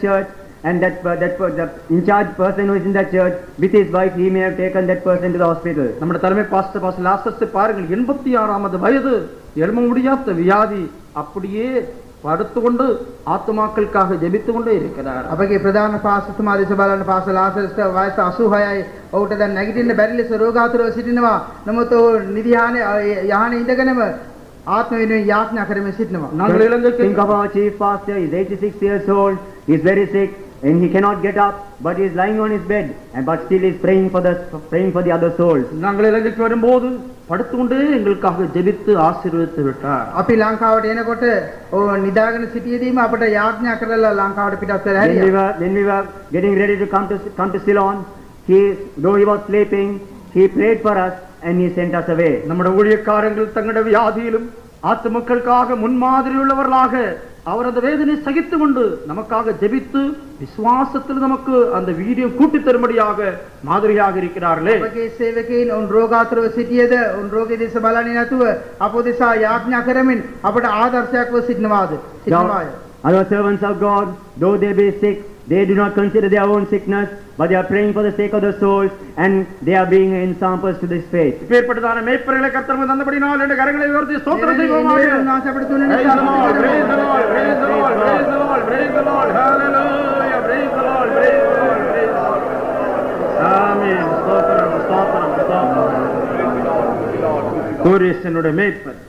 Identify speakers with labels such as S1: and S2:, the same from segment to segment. S1: church and that per- that per- the in charge person who is in the church with his wife he may have taken that person to the hospital
S2: நம்முடைய தலைமை pastor pastor Lazarus பாருங்கள் எண்பத்தி ஆறாமது வயது எழும முடியாத வியாதி அப்படியே படுத்து கொண்டு ஆத்மாக்களுக்காக ஜெபித்து கொண்டே இருக்கிறார்
S3: අපගේ ප්‍රධාන පාසතුමා දෙස බලන පාස ලාසරස්ට වයස 86යි. ඔහුට දැන් නැගිටින්න බැරි ලෙස රෝගාතුරව සිටිනවා. නමුත් ඔහු නිධානයේ යහනේ ඉඳගෙනම ආත්ම වෙනුවෙන් යාඥා කරමින් සිටිනවා.
S2: நாங்கள்
S1: think of
S2: இலங்கைக்கு
S1: our chief pastor he is 86 years old he is very sick and he cannot get up but he is lying on his bed and but still he is praying for the praying for the other souls
S2: நாங்கள் இலங்கைக்கு வரும்போது படுத்து கொண்டே எங்களுக்காக ஜெபித்து ஆசீர்வதித்து விட்டார்
S3: අපි ලංකාවට එනකොට ඔහු නිදාගෙන සිටියේදීම අපට යාඥා කරලා ලංකාවට පිටත් වෙලා
S1: when we
S3: හැරියා.
S1: were when we were getting ready to come to come to Ceylon he though he was sleeping he prayed for us and he sent us away
S2: நம்முடைய ஊழியக்காரங்கள் தங்களுடைய வியாதியிலும் ஆத்துமக்களுக்காக முன்மாதிரி உள்ளவர்களாக அவரது வேதனை சகித்து கொண்டு நமக்காக ஜெபித்து விசுவாசத்தில் நமக்கு அந்த வீடியோ கூட்டி தரும்படியாக மாதிரியாக இருக்கிறார்களே
S3: අපගේ සේවකයින් උන් රෝගාතුරව සිටියේද උන් රෝගී දෙස බලන්නේ නැතුව අප දෙසා යාඥා කරමින් අපට ආදර්ශයක්ව සිටිනවාද? සිටිනවාය.
S1: Now, Our servants of God, though they be sick, they do not consider their own sickness, but they are praying for the sake of the souls, and they are being examples to this faith.
S2: இப்பேற்பட்டதான மேய்ப்பர்களை கர்த்தர் தந்தபடினால் என்று கரங்களை உயர்த்தி ஸ்தோத்திரம்
S3: මේ
S2: செய்வோமாக
S3: නිවැරදි උන්වහන්සේ අපට තුන
S2: Praise the Lord, praise the
S3: නිසා
S2: Lord, praise the Lord, praise the Lord, praise the Lord, hallelujah, praise the Lord, praise the Lord, praise the Lord. ஆமென். ஸ்தோத்திரம், ஸ்தோத்திரம், ஸ்தோத்திரம். கோரேஸ் என்னுடைய மேய்ப்பர்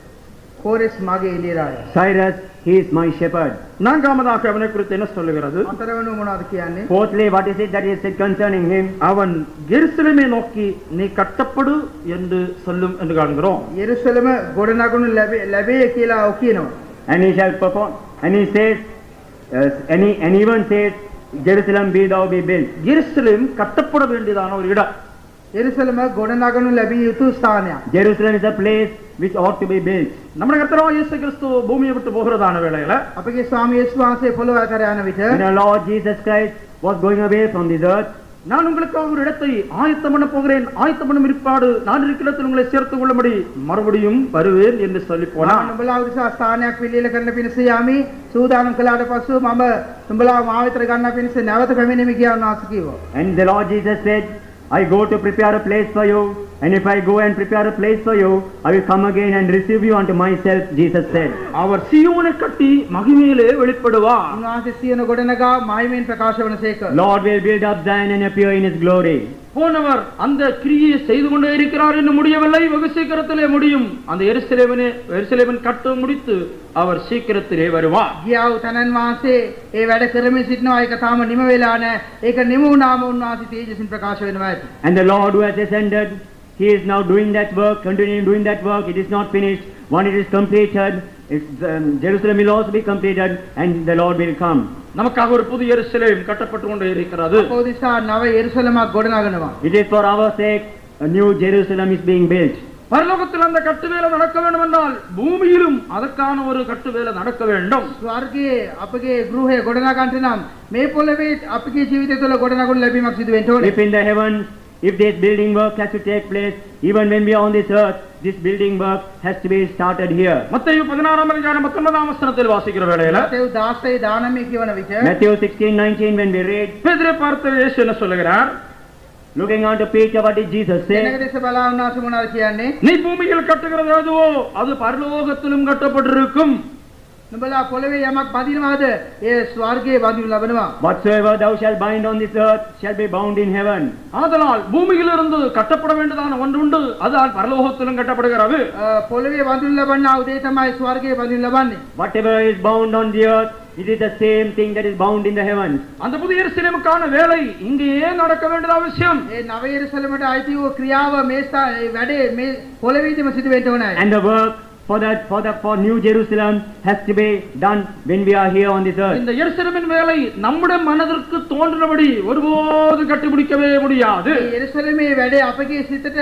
S3: කෝරෙස් මගේ එළියරාය.
S1: Cyrus, he is my shepherd.
S2: நான்காமதாக அவனை குறித்து என்ன சொல்லுகிறது
S3: අතරවනු මොනවද කියන්නේ?
S1: Fourthly, what is it that is said concerning him?
S2: அவன் எருசலேமை நோக்கி நீ கட்டப்படு என்று சொல்லும் என்று காண்கிறோம்
S3: යෙරුසලම ගොඩනගුණු ලැබේ ලැබේ කියලා ඔහු කියනවා.
S1: And he shall perform, and he says, uh, and, he, and even says, Jerusalem be thou be built.
S2: எருசலேம் கட்டப்பட வேண்டியதான ஒரு இடம்
S3: යෙරුසලම ගොඩනගනු ලැබිය යුතු ස්ථානයක්.
S1: Jerusalem is a place which ought to be built.
S2: நம்முடைய கர்த்தரோ இயேசு கிறிஸ்து பூமியை விட்டு போகிறதான வேளையில
S3: අපගේ ස්වාමී යේසුස් වහන්සේ පොළොව අතර යන විට
S1: When our Lord Jesus Christ was going away from this earth,
S2: நான் உங்களுக்காக ஒரு இடத்தை ஆயத்தம் பண்ண போகிறேன் ஆயத்தம் பண்ணும் இருப்பாடு நான் இருக்கிறத்தில் உங்களை சேர்த்துக் கொள்ளும்படி மறுபடியும் வருவேன் என்று சொல்லி போனான்
S3: මම නුඹලා උදෙසා ස්ථානයක් පිළිල කරන පිණිස යාමි සූදානම් කළාට පසු මම නුඹලා මා වෙතට ගන්න පිණිස නැවත පැමිණෙමි කියලා උන්වහන්සේ කිව්වා.
S1: And the Lord Jesus said, I go to prepare a place for you, and if I go and prepare a place for you, I will come again and receive you unto myself, Jesus said.
S2: அவர் சியோனை கட்டி மகிமையிலே வெளிப்படுவார்
S3: උන්වහන්සේ සියන ගොඩනගා මහිමෙන් ප්‍රකාශ වනසේක.
S1: Lord will build up Zion and appear in his glory.
S2: போனவர் அந்த கிரியை செய்து கொண்டே இருக்கிறார் என்று முடியவில்லை வெகு சீக்கிரத்திலே முடியும் அந்த எருசலேமனே எருசலேமன் கட்டு முடித்து அவர் சீக்கிரத்திலே வருவார்
S3: ගියා වූ තනන් වහන්සේ ඒ වැඩ කරමින් සිටිනවා ඒක තාම නිම වෙලා නැහැ. ඒක නිම වුණාම උන්වහන්සේ තේජසින් ප්‍රකාශ වෙනවා ඇති.
S1: And the Lord who has ascended, he is now doing that work, continuing doing that work. It is not finished. When it is completed, it's, um, Jerusalem will also be completed, and the Lord will come.
S2: நமக்காக ஒரு புது எருசலேம் கட்டப்பட்டு கொண்டே இருக்கிறது
S3: පෝදිසා නව එරුසලමක් ගොඩනගනවා.
S1: It is for our sake a new Jerusalem is being built.
S2: பரலோகத்தில் அந்த கட்டுவேலை நடக்க வேண்டும் என்றால் பூமியிலும் அதற்கான ஒரு கட்டுவேலை நடக்க வேண்டும்
S3: ස්වර්ගයේ අපගේ ගෘහය ගොඩනගන්නට නම් මේ පොළවේ අපගේ ජීවිතය තුළ ගොඩනගනු ලැබීමක් සිදු වෙන්න ඕනේ.
S1: If in the heavens, if this building work has to take place, even when we are on this earth, this building work has to be started here.
S2: மத்தேயு பதினாறாம் அதிகாரம் பத்தொன்பதாம் வசனத்தில் வாசிக்கிற வேளையில
S3: තෙව් 16 දානමය කියවන විට
S1: Matthew 16:19, when we read,
S2: பேதரை பார்த்த இயேசு என்ன சொல்லுகிறார்
S1: looking unto Peter, what did Jesus
S3: දෙනක
S1: say?
S3: දෙස බලා උන්වහන්සේ මොනවද කියන්නේ?
S2: நீ பூமியில் கட்டுகிறது எதுவோ அது பரலோகத்திலும் கட்டப்பட்டிருக்கும்
S3: නුඹලා පොළවේ යමක් බඳිනවාද? ඒ ස්වර්ගයේ බඳිනු ලබනවා.
S1: Whatsoever thou shalt bind on this earth shall be bound in heaven.
S2: ஆதலால் பூமியிலிருந்து கட்டப்பட வேண்டியதான ஒன்று உண்டு அது பரலோகத்திலும் கட்டப்படுகிறது
S3: අ, පොළවේ බඳිනු ලබන්නා උදේ තමයි ස්වර්ගයේ බඳිනු ලබන්නේ.
S1: Whatever is bound on the earth, it is the same thing that is bound in the heavens.
S2: அந்த புதிய எருசலேமுக்கான வேலை இங்கேயே நடக்க வேண்டியது அவசியம்
S3: ඒ නව එරුසලමට අයිති වූ ක්‍රියාව මේ ස්ථා- ඒ වැඩේ මේ පොළවේදීම සිදු වෙන්න ඕනේ.
S1: And the work for that, for the, for New Jerusalem has to be done when we are here on this earth.
S2: இந்த எருசலேமின் வேலை நம்முடைய மனதிற்கு தோன்றினபடி ஒருபோது கட்டிபிடிக்கவே முடியாது
S3: ඒ එරුසලමේ වැඩේ අපගේ සිතට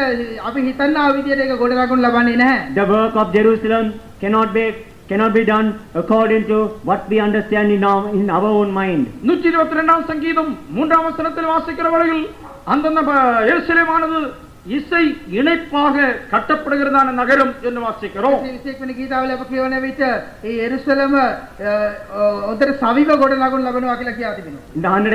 S3: අපි හිතන්නා විදියට ඒක ගොඩනගනු ලබන්නේ නැහැ.
S1: The work of Jerusalem cannot be cannot be done according to what we understand in our in our own mind.
S2: நூற்றி இருபத்தி ரெண்டாம் சங்கீதம் மூன்றாம் வசனத்தில் வாசிக்கிற வரையில் அந்தந்த ப- எருசலேமானது இசை இணைப்பாக கட்டப்படுகிறதான நகரம் என்று வாசிக்கிறோம்
S3: විශේෂයෙන්ම ගීතාවල අප කියවන විට ඒ එරුසලම හොඳට සවිව ගොඩ නගුන් ලබනවා කියලා කියා තිබෙනවා.
S1: In the 100